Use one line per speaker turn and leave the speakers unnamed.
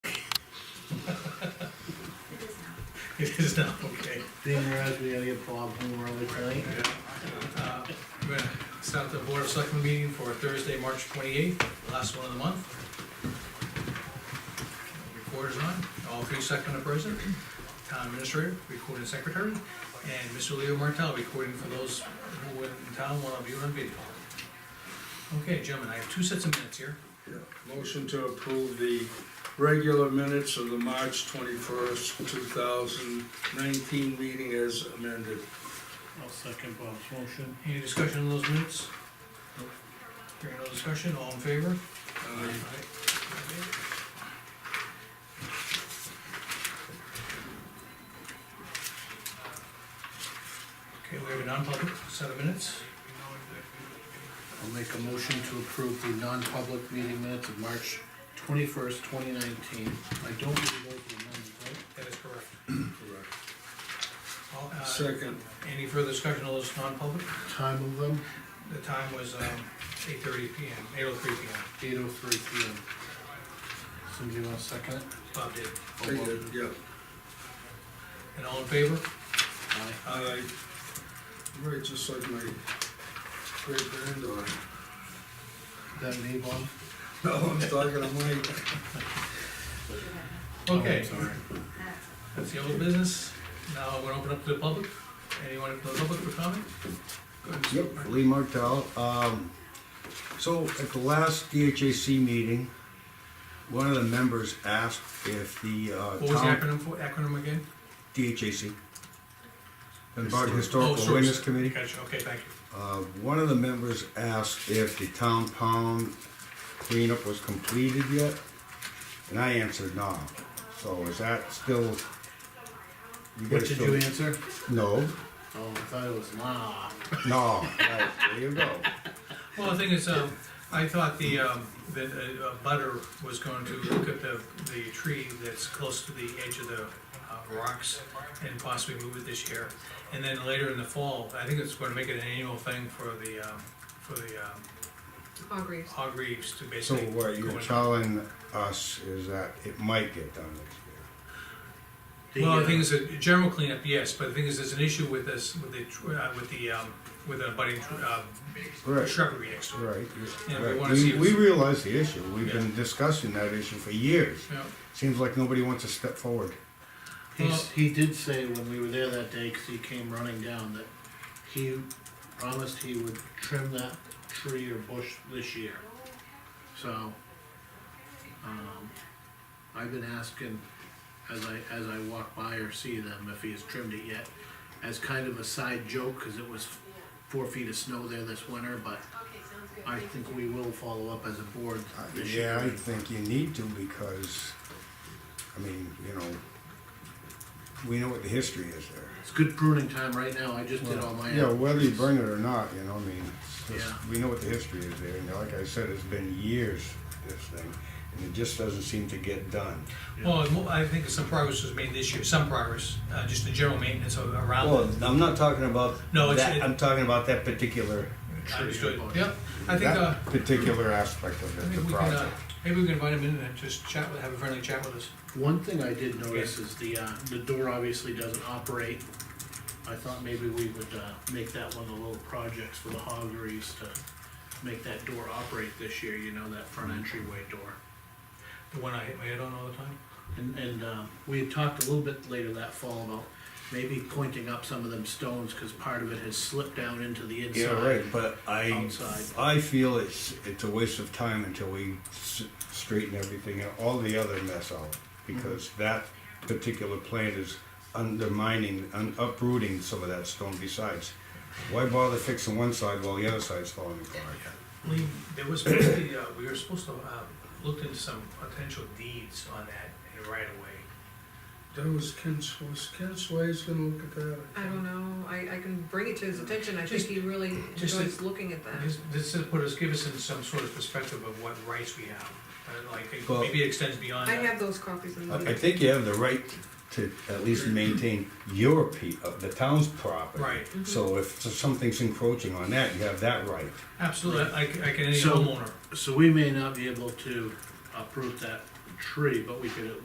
It is now, okay.
Being whereas we gotta get Bob home early tonight.
Uh, We're gonna start the Board of Selectmen meeting for Thursday, March twenty-eighth, last one of the month. Recorder's on, all three selectmen are present, town administrator, recording secretary, and Mr. Leo Martell recording for those who were in town while viewing on video. Okay, gentlemen, I have two sets of minutes here.
Motion to approve the regular minutes of the March twenty-first, two thousand nineteen meeting as amended.
I'll second Bob's motion.
Any discussion on those minutes? Hearing no discussion, all in favor?
Uh,
Okay, we have a non-public set of minutes.
I'll make a motion to approve the non-public meeting minutes of March twenty-first, twenty nineteen. I don't believe those were amended, right?
That is correct.
correct.
All, uh,
Second,
Any further discussion on those non-public?
Time of them,
The time was um, eight thirty P M, eight oh three P M.
eight oh three P M. Somebody wanna second it?
Bob did.
Oh, Bob.
Second, yeah.
And all in favor?
Aye.
I, right, just like my great granddaughter.
That me, Bob?
No, Oh, I'm talking to Mike.
Okay,
Oh, I'm sorry.
that's the old business. Now I'm gonna open up to the public. Anyone from the public for comment? Go ahead, Mr.
Yep, Lee Martell. Um, so at the last DHAC meeting, one of the members asked if the, uh,
What was the
town,
acronym for, acronym again?
DHAC, Dunbarton Historical
Source.
Awareness Committee,
Oh, Gotcha, okay, thank you.
uh, one of the members asked if the town pound cleanup was completed yet, and I answered no. So is that still?
What
guys
did
still-
you answer?
No,
Oh, I thought it was nah.
no, right, there you go.
Well, the thing is, um, I thought the, um, that uh, uh, Butter was going to look at the, the tree that's close to the edge of the uh, rocks and possibly move it this year. And then later in the fall, I think it's gonna make it an annual thing for the, um, for the, um,
Hargreaves.
Hog Reeves to
So
basically.
what
go
you're
in.
telling us is that it might get done next
Well, the
uh,
thing is, a general cleanup, yes, but the thing is, there's an issue with this, with the, tr- uh, with the, um, with the budding, tr-
year.
uh,
Right,
shrubbery next to it.
right.
Yeah, we
right.
wanna see if-
We realize the issue, we've
Yeah.
been discussing that issue for years.
Yeah.
Seems like nobody wants to step forward.
He's, he did say when we were there that day, cause he came running down, that he promised he would trim that tree or bush this year. So, um, I've been asking as I, as I walk by or see them if he has trimmed it yet, as kind of a side joke, cause it was four feet of snow there this winter, but I think we will follow up as a board
Uh,
this
Yeah, I
year.
think you need to because, I mean, you know, we know what the history is there.
It's good pruning time right now, I just did all my.
Yeah, whether you bring it or not, you know, I mean, it's just-
Yeah.
we know what the history is there. And like I said, it's been years, this thing, and it just doesn't seem to get done.
Well, mo- I think some progress was made this year, some progress, uh, just the general maintenance of-
Well,
around it.
I'm not talking about
No, it's-
that, I'm talking about that particular,
Understood, yep. I think, uh,
that particular aspect of
I
it,
think
the
we can, uh,
project.
maybe we can invite him in and just chat with, have a friendly chat with us.
One thing I did notice is the, uh, the door obviously doesn't operate. I thought maybe we would, uh, make that one of the little projects for the Hoggeries to make that door operate this year, you know, that
Mm-hmm.
front entryway door.
The one I hit my head on all the time.
And, and, um, we had talked a little bit later that fall about maybe pointing up some of them stones, cause part of it has slipped down into the inside.
Yeah,
uh,
right, but I,
Outside.
I feel it's, it's a waste of time until we s- straighten everything and all the other mess out. Because that particular plant is undermining, un- uprooting some of that stone besides. Why bother fixing one side while the other side's falling apart?
Lee, there was supposed to be, uh, we were supposed to, uh, look into some potential deeds on that and right away.
That was Ken, Sw- was Ken Sway's gonna look at that?
I don't know, I, I can bring it to his attention, I
Just-
think he really
just
enjoys looking at that.
This, this is put us, give us in some sort of perspective of what rights we have, Uh, like, it-
Well-
maybe it extends beyond
I
that.
have those copies in
I I
the,
think you have the right to at least maintain your pe- of the town's property.
Right.
So if something's encroaching on that, you have that right.
Absolutely, I, I can, any
So-
homeowner.
So we may not be able to uproot that tree, but we could at